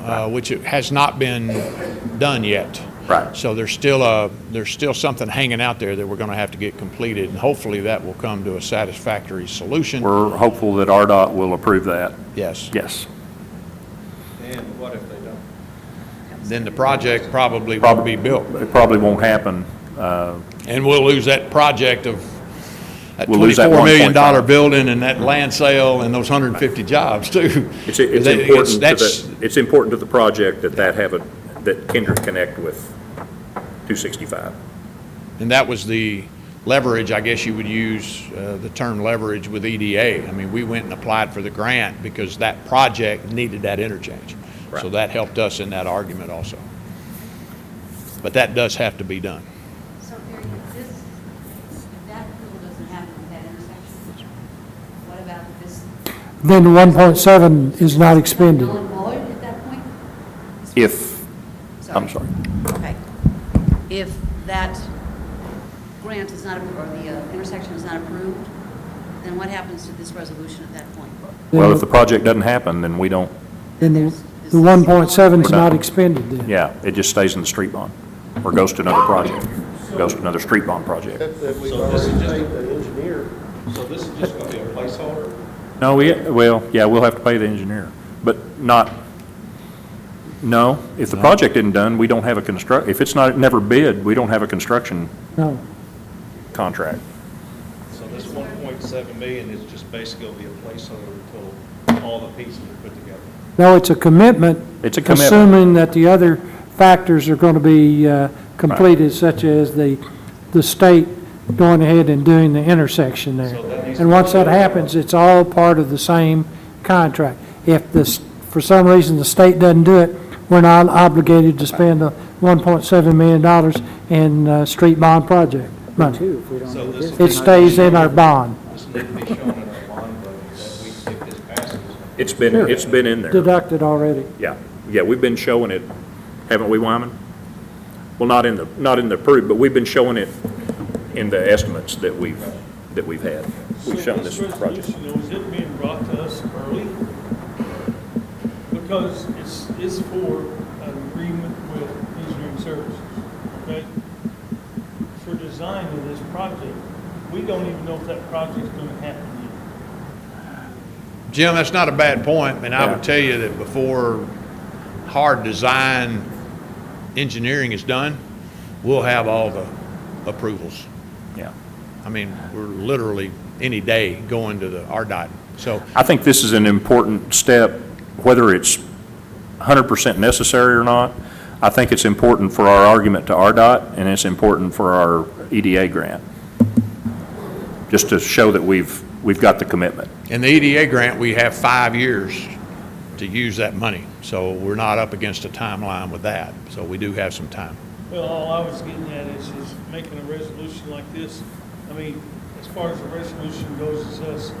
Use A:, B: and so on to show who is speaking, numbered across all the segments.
A: uh, which it has not been done yet.
B: Right.
A: So there's still a, there's still something hanging out there that we're going to have to get completed, and hopefully that will come to a satisfactory solution.
B: We're hopeful that RDOT will approve that.
A: Yes.
B: Yes.
C: And what if they don't?
A: Then the project probably won't
B: Probably
A: be built,
B: It probably won't happen. Uh,
A: and we'll lose that project of, that
B: We'll lose that
A: $24 million dollar
B: 1.5.
A: building and that land sale and those 150 jobs, too.
D: It's, it's
A: That-
D: important to
A: that's-
D: the, it's important to the project that that have a, that Kindred connect with 265.
A: And that was the leverage, I guess you would use uh, the term leverage with EDA. I mean, we went and applied for the grant because that project needed that interchange. So
D: Right.
A: that helped us in that argument also. But that does have to be done.
E: So Barry, if this, if that approval doesn't happen at that intersection, what about if this?
F: Then the 1.7 is not expended.
E: Null and void at that point?
B: If, I'm sorry.
E: Okay. If that grant is not, appro- or the uh, intersection is not approved, then what happens to this resolution at that point?
B: Well, if the project doesn't happen, then we don't,
F: Then the the 1.7 is not expended then.
B: yeah, it just stays in the street bond or goes to another project, goes to another street bond project.
G: Except that we've
C: So this is
G: already
C: just a-
G: paid the engineer.
C: So this is just gonna be a placeholder?
B: No, we, well, yeah, we'll have to pay the engineer, but not, no, if the project isn't done, we don't have a construct, if it's not, never bid, we don't have a construction
F: No.
B: contract.
C: So this one point seven million is just basically gonna be a placeholder until all the pieces are put together.
F: No, it's a commitment.
B: It's a commitment.
F: Assuming that the other factors are going to be uh, completed, such as the, the state going ahead and doing the intersection there.
C: So that needs to
F: And
C: be-
F: once that happens, it's all part of the same contract. If this, for some reason, the state doesn't do it, we're not obligated to spend the 1.7 million dollars in uh, street bond project money.
C: So this. will
F: It
C: need to
F: stays
C: be-
F: in our bond
C: This need to be shown in our bond vote that we, if this passes,
D: It's been, it's been in there.
F: deducted already.
D: Yeah, yeah, we've been showing it, haven't we, Wyman? Well, not in the, not in the approved, but we've been showing it in the estimates that we've, that we've had. We've
H: So
D: shown this project.
H: resolution, though, is it being brought to us early? Because it's, it's for an agreement with engineering services, okay? For design of this project, we don't even know if that project's gonna happen yet.
A: Jim, that's not a bad point, and I would tell you that before hard design engineering is done, we'll have all the approvals.
B: Yeah.
A: I mean, we're literally any day going to the RDOT. So
B: I think this is an important step, whether it's 100% necessary or not. I think it's important for our argument to RDOT, and it's important for our
D: E
B: EDA grant, just to show that we've, we've got the commitment.
A: In the EDA grant, we have five years to use that money, so we're not up against a timeline with that, so we do have some time.
H: Well, all I was getting at is, is making a resolution like this, I mean, as far as the resolution goes, is us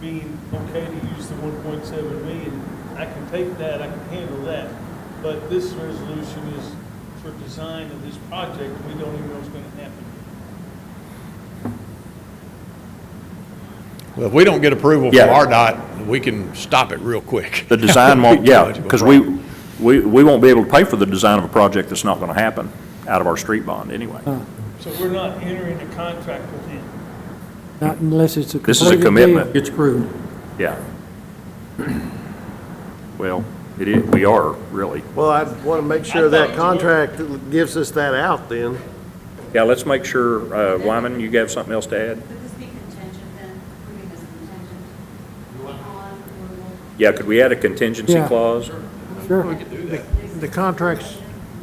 H: being okay to use the one point seven million, I can take that, I can handle that, but this resolution is for design of this project, we don't even know what's gonna happen.
A: Well, if we don't get approval from
B: Yeah.
A: RDOT, we can stop it real quick.
B: The design won't, yeah, because we,
A: Right.
B: we, we won't be able to pay for the design of a project that's not going to happen out of our street bond anyway.
H: So we're not entering a contract with him.
F: Not unless it's a
B: This is a
F: completed deal.
B: commitment.
I: It's approved.
B: Yeah. Well, it is, we are, really.
G: Well, I want to make sure that contract gives us that out then.
D: Yeah, let's make sure, uh, Wyman, you got something else to add?
E: Could this be contingent then, approving this contingent on approval?
D: Yeah, could we add a contingency
F: Yeah.
D: clause?
F: Sure.
G: The contract's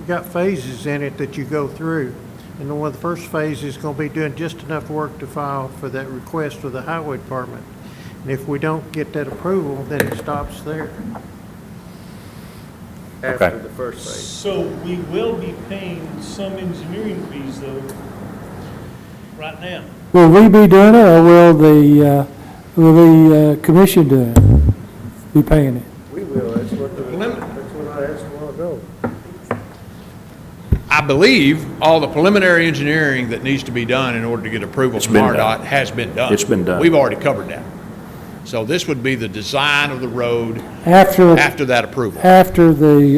G: got phases in it that you go through. And the one, the first phase is going to be doing just enough work to file for that request with the highway department. And if we don't get that approval, then it stops there.
B: Okay.
G: the first
H: So we will be paying some engineering fees though, right now.
F: Will we be doing it, or will the, uh, will the uh, commission do it? Be paying it?
G: We will, that's what, the- that's what I asked a while ago.
A: I believe all the preliminary engineering that needs to be done in order to get approval
B: It's
A: from
B: been done.
A: RDOT has been done.
B: It's been done.
A: We've already covered that. So this would be the design of the road
F: After,
A: after that approval.
F: after the